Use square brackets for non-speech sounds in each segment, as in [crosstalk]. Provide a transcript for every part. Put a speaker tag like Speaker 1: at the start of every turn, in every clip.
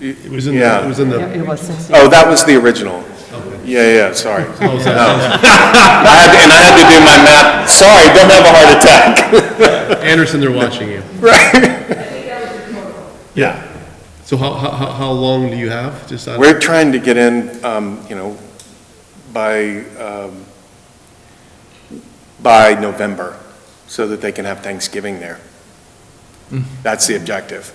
Speaker 1: It it was in, the-
Speaker 2: Yeah.
Speaker 1: it was in the,
Speaker 3: It was 60.
Speaker 2: Oh, that was the original. Yeah, yeah, sorry. No.
Speaker 1: oh, is that-
Speaker 2: [laughs] I had to- And I had to do my math, sorry, don't have a heart attack.
Speaker 1: [laughs] Anderson, they're watching you. Yeah. So how, how, how- how long do you have? Just out of-
Speaker 2: [laughs] We're trying to get in, um, you know, by, um, by November, so that they can have Thanksgiving there. That's the objective.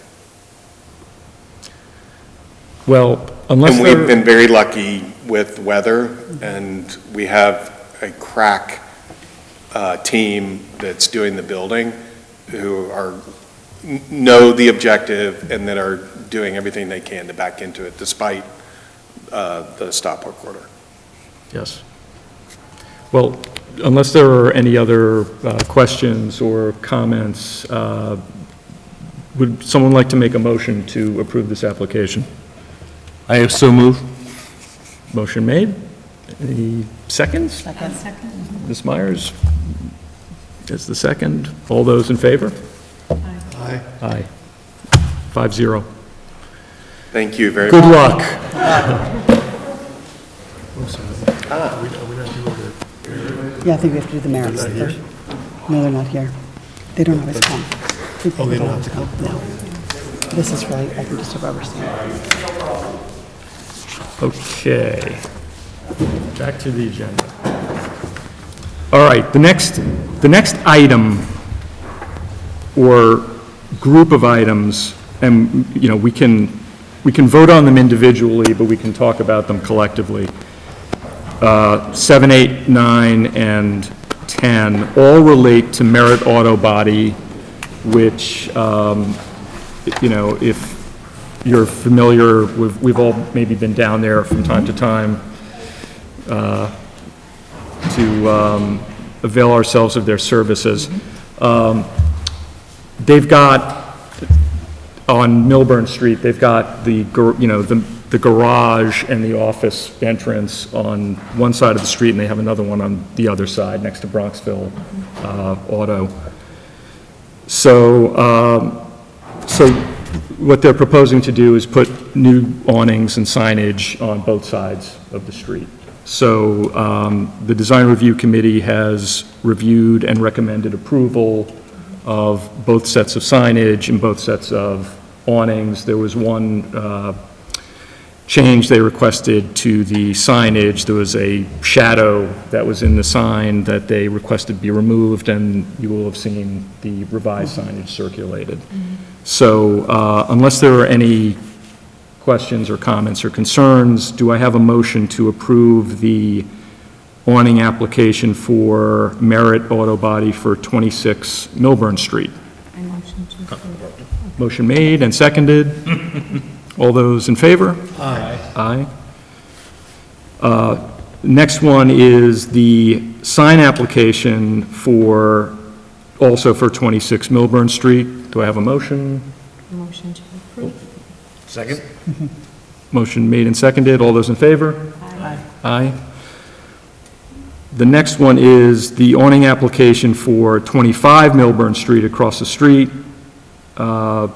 Speaker 4: Well, unless
Speaker 2: And we've
Speaker 4: they're,
Speaker 2: been very lucky with weather, and we have a crack uh, team that's doing the building, who are, kn- know the objective, and that are doing everything they can to back into it despite uh, the stop work order.
Speaker 4: yes. Well, unless there are any other uh, questions or comments, uh, would someone like to make a motion to approve this application?
Speaker 5: I have so moved.
Speaker 4: Motion made. Any seconds?
Speaker 3: Second.
Speaker 4: Ms. Myers is the second. All those in favor?
Speaker 1: Aye.
Speaker 4: Aye. Five zero.
Speaker 2: Thank you very much.
Speaker 4: Good luck.
Speaker 3: Yeah, I think we have to do the merits. They're- No, they're not here. They don't always come. Oh, they don't have to come? No. This is really, I can just a rubber stamp.
Speaker 4: Okay. Back to the agenda. All right, the next, the next item or group of items, and, you know, we can, we can vote on them individually, but we can talk about them collectively. Uh, Seven, eight, nine, and 10 all relate to Merit Auto Body, which, um, you know, if you're familiar, we've, we've all maybe been down there from time to time uh, to um, avail ourselves of their services. Um, They've got, on Milburn Street, they've got the, gar- you know, the the garage and the office entrance on one side of the street, and they have another one on the other side, next to Bronxville uh, Auto. So, um, so what they're proposing to do is put new awnings and signage on both sides of the street. So um, the Design Review Committee has reviewed and recommended approval of both sets of signage and both sets of awnings. There was one uh, change they requested to the signage. There was a shadow that was in the sign that they requested be removed, and you will have seen the revised signage circulated. So uh, unless there are any questions or comments or concerns, do I have a motion to approve the awning application for Merit Auto Body for 26 Milburn Street?
Speaker 6: I motion to approve.
Speaker 4: Motion made and seconded. All those in favor? Aye. Aye. Uh, Next one is the sign application for, also for 26 Milburn Street. Do I have a motion?
Speaker 6: Motion to approve.
Speaker 5: Second?
Speaker 4: Motion made and seconded. All those in favor?
Speaker 6: Aye.
Speaker 4: Aye. The next one is the awning application for 25 Milburn Street across the street. Uh,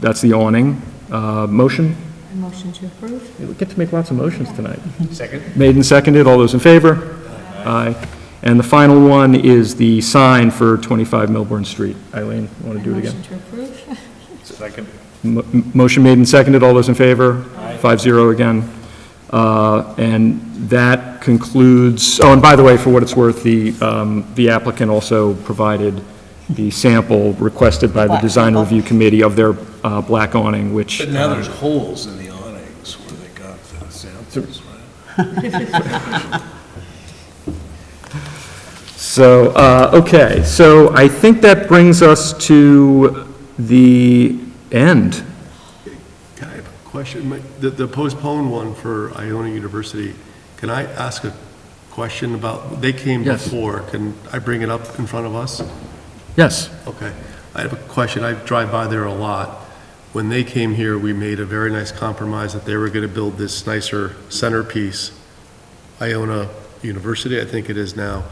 Speaker 4: That's the awning. Uh, Motion?
Speaker 6: I motion to approve.
Speaker 4: We get to make lots of motions tonight.
Speaker 5: Second?
Speaker 4: Made and seconded, all those in favor? Aye. And the final one is the sign for 25 Milburn Street. Eileen, want to do it
Speaker 6: I
Speaker 4: again?
Speaker 6: Motion to approve. [laughs]
Speaker 5: Second.
Speaker 4: Mo- m- Motion made and seconded, all those in favor? Five zero again. Uh, And that concludes, oh, and by the way, for what it's worth, the, um, the applicant also provided the sample requested by the
Speaker 3: Black
Speaker 4: Design
Speaker 3: sample.
Speaker 4: Review Committee of their uh, black awning, which... uh,
Speaker 7: But now there's holes in the awnings where they got the samples, right?
Speaker 4: So, uh, okay, so I think that brings us to the end.
Speaker 1: Can I have a question? My- The, the postponed one for Iona University, can I ask a question about, they came
Speaker 4: Yes.
Speaker 1: before, can I bring it up in front of us?
Speaker 4: Yes.
Speaker 1: Okay. I have a question. I drive by there a lot. When they came here, we made a very nice compromise that they were going to build this nicer centerpiece, Iona University, I think it is now,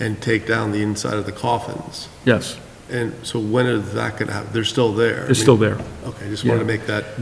Speaker 1: and take down the inside of the coffins.
Speaker 4: Yes,
Speaker 1: And so when is that going to happen? They're still there.
Speaker 4: it's still there.
Speaker 1: Okay, just wanted to
Speaker 4: Yeah.
Speaker 1: make that